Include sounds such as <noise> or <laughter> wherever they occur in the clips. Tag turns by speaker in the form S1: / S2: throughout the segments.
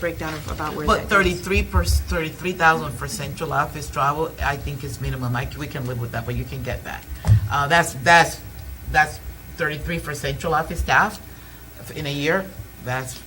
S1: breakdown of about where
S2: But
S1: that goes.
S2: thirty-three per, thirty-three thousand for central office travel, I think is minimum, I, c- we can live with that, but you can get that. Uh, that's, that's, that's thirty-three for central office staff in a year, that's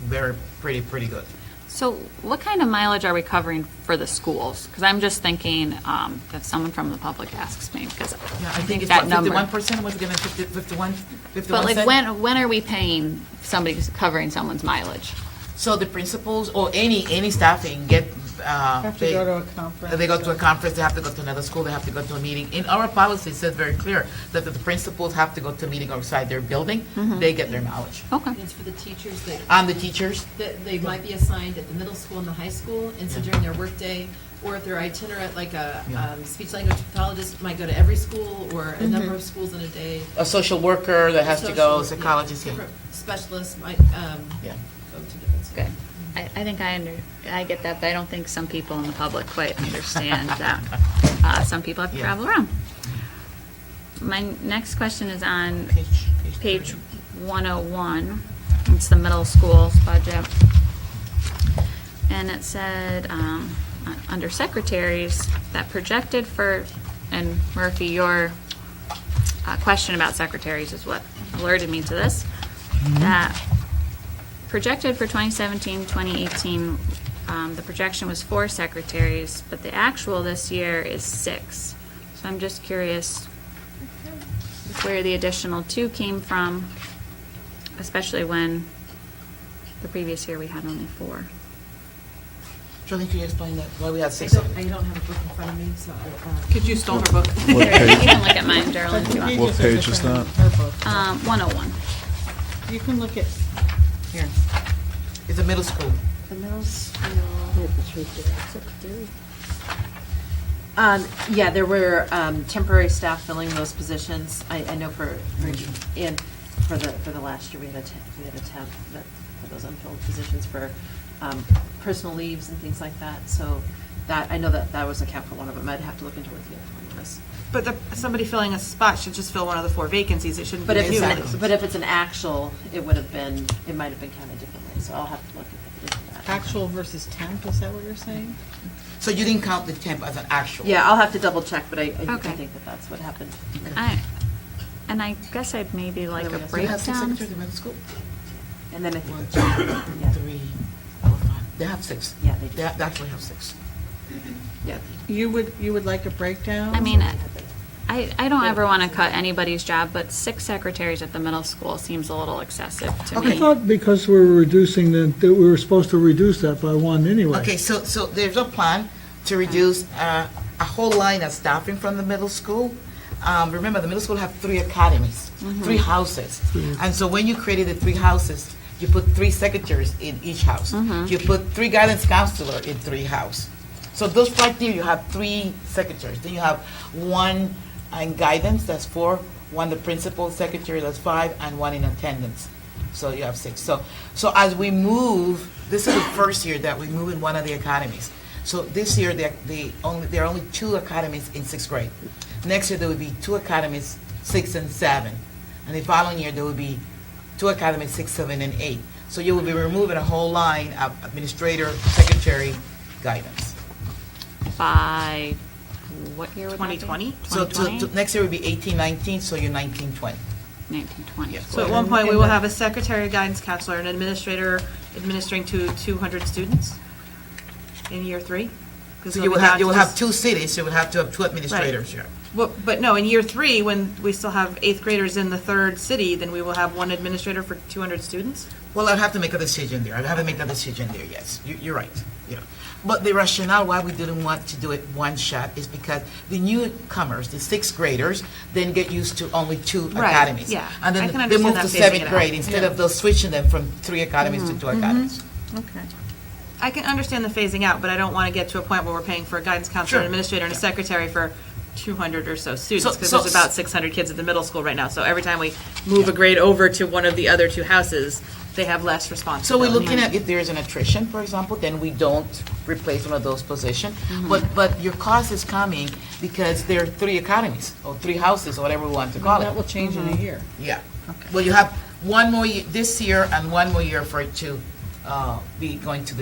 S2: very, pretty, pretty good.
S3: So what kind of mileage are we covering for the schools? Because I'm just thinking um, if someone from the public asks me, because
S2: Yeah,
S3: I think
S2: it's
S3: that number.
S2: Fifty-one percent was given, fifty, fifty-one, fifty-one
S3: But
S2: cent.
S3: like, when, when are we paying somebody, covering someone's mileage?
S2: So the principals or any, any staffing get, uh.
S4: Have to
S2: they-
S4: go to a conference
S2: They go to a
S4: or-
S2: conference, they have to go to another school, they have to go to a meeting. In our policy, it says very clear that the principals have to go to a meeting outside their building,
S1: Mm-hmm.
S2: they get their mileage.
S3: Okay.
S5: It's for the teachers that,
S2: I'm the teachers,
S5: that they might be assigned at the middle school and the high school, and so during their workday, or if they're itinerant, like a
S2: Yeah.
S5: um, speech language pathologist might go to every school or a number of schools in a day.
S2: a social worker that has to
S5: Social- yeah,
S2: go, psychologist, yeah.
S5: different Specialists might um,
S2: Yeah.
S5: go to different schools.
S3: Good. I, I think I under, I get that, but I don't think some people in the public quite
S2: <laughs>
S3: understand that. Uh, some people have to
S2: Yeah.
S3: travel around. My next question is on
S2: Page- page
S3: page
S2: thirty.
S3: one oh one. It's the middle school's budget. And it said, um, uh, under secretaries, that projected for, and Murphy, your uh, question about secretaries is what alerted me to this,
S2: Mm-hmm.
S3: that projected for 2017, 2018, um, the projection was four secretaries, but the actual this year is six. So I'm just curious where the additional two came from, especially when the previous year we had only four.
S2: Jolene, can you explain that, why we had
S5: I
S2: six?
S5: don't, I don't have a book in front of me, so. I um,
S6: Could you stole her book?
S3: You
S7: What
S1: <laughs>
S7: page,
S3: can look at mine, Darrell, if you want.
S7: What page is that?
S3: Um, 101.
S4: You can look at,
S2: Here. It's a middle school.
S8: The middle school. Um, yeah, there were, um, temporary staff filling those positions, I, I know for, for- and for the, for the last year, we had a temp, we had a temp, that, for those unfilled positions for, um, personal leaves and things like that, so that, I know that that was a cap for one of them, I'd have to look into what the other one was.
S1: But the- somebody filling a spot should just fill one of the four vacancies, it shouldn't be
S8: But if it's,
S1: new.
S8: an- but if it's an actual, it would have been, it might have been counted differently, so I'll have to look into that.
S4: actual versus temp, is that what you're saying?
S2: So you didn't count the temp as an actual?
S8: Yeah, I'll have to double check, but I, I
S3: Okay.
S8: I think that that's what happened.
S3: I, and I guess I'd maybe like a
S8: Otherwise,
S2: So you have six
S3: breakdown.
S2: secretaries in middle school?
S8: And then I
S2: One,
S8: think,
S2: two,
S8: Yeah.
S2: three, four, five. They have six.
S8: Yeah, they do.
S2: They ha- actually have six.
S8: yeah.
S4: You would, you would like a breakdown?
S3: I mean, I, I don't ever want to cut anybody's job, but six secretaries at the middle school seems a little excessive to
S2: Okay.
S3: me.
S9: I thought because we were reducing the, that we were supposed to reduce that by one anyway.
S2: Okay, so, so there's a plan to reduce uh, a whole line of staffing from the middle school. Um, Remember, the middle school have three academies, three houses. And so when you created the three houses, you put three secretaries in each house. You put three guidance counselor in three house. So those right there, you have three secretaries. Then you have one in guidance, that's four, one the principal secretary, that's five, and one in attendance. So you have six. So, so as we move, this is the first year that we move in one of the academies. So this year, the, the only, there are only two academies in sixth grade. Next year, there will be two academies, six and seven. And the following year, there will be two academies, six, seven, and eight. So you will be removing a whole line of administrator, secretary, guidance.
S3: By, what year would that be?
S1: 2020?
S2: So to,
S3: 2020?
S2: to, next year will be eighteen, nineteen, so you're nineteen, twenty.
S3: 1920.
S2: Yeah.
S1: So at one point, we will have a secretary, a guidance counselor, an administrator administering to 200 students in year three. 'Cause
S2: So
S1: it'll
S2: you
S1: be
S2: will have,
S1: down
S2: you
S1: to
S2: will
S1: just-
S2: have two cities, you will have to have two administrators here.
S1: Well, but no, in year three, when we still have eighth graders in the third city, then we will have one administrator for two hundred students?
S2: Well, I'd have to make a decision there. I'd have to make a decision there, yes. You- You're right, yeah. But the rationale why we didn't want to do it one shot is because the newcomers, the sixth graders, then get used to only two
S1: Right,
S2: academies.
S1: yeah.
S2: And
S1: I
S2: then
S1: can
S2: they
S1: understand
S2: move
S1: that
S2: to
S1: phasing it
S2: seventh
S1: out. Mm-hmm.
S2: grade instead of those switching them from three academies to two academies.
S3: Okay.
S1: I can understand the phasing out, but I don't want to get to a point where we're paying for a guidance counselor,
S2: Sure.
S1: an administrator, and a secretary for two hundred or so students, because
S2: so-
S1: there's about six hundred kids at the middle school right now, so every time we move a grade over to one of the other two houses, they have less
S2: So
S1: responsibility.
S2: we're looking at if there is an attrition, for example, then we don't replace one of those positions.
S1: Mm-hmm.
S2: But, but your cost is coming because there are three academies, or three houses, or whatever we want to call it.
S4: That will change
S8: Mm-hmm.
S4: in a year.
S2: Yeah. Well, you have one more, ye- this year and one more year for two uh, be going to the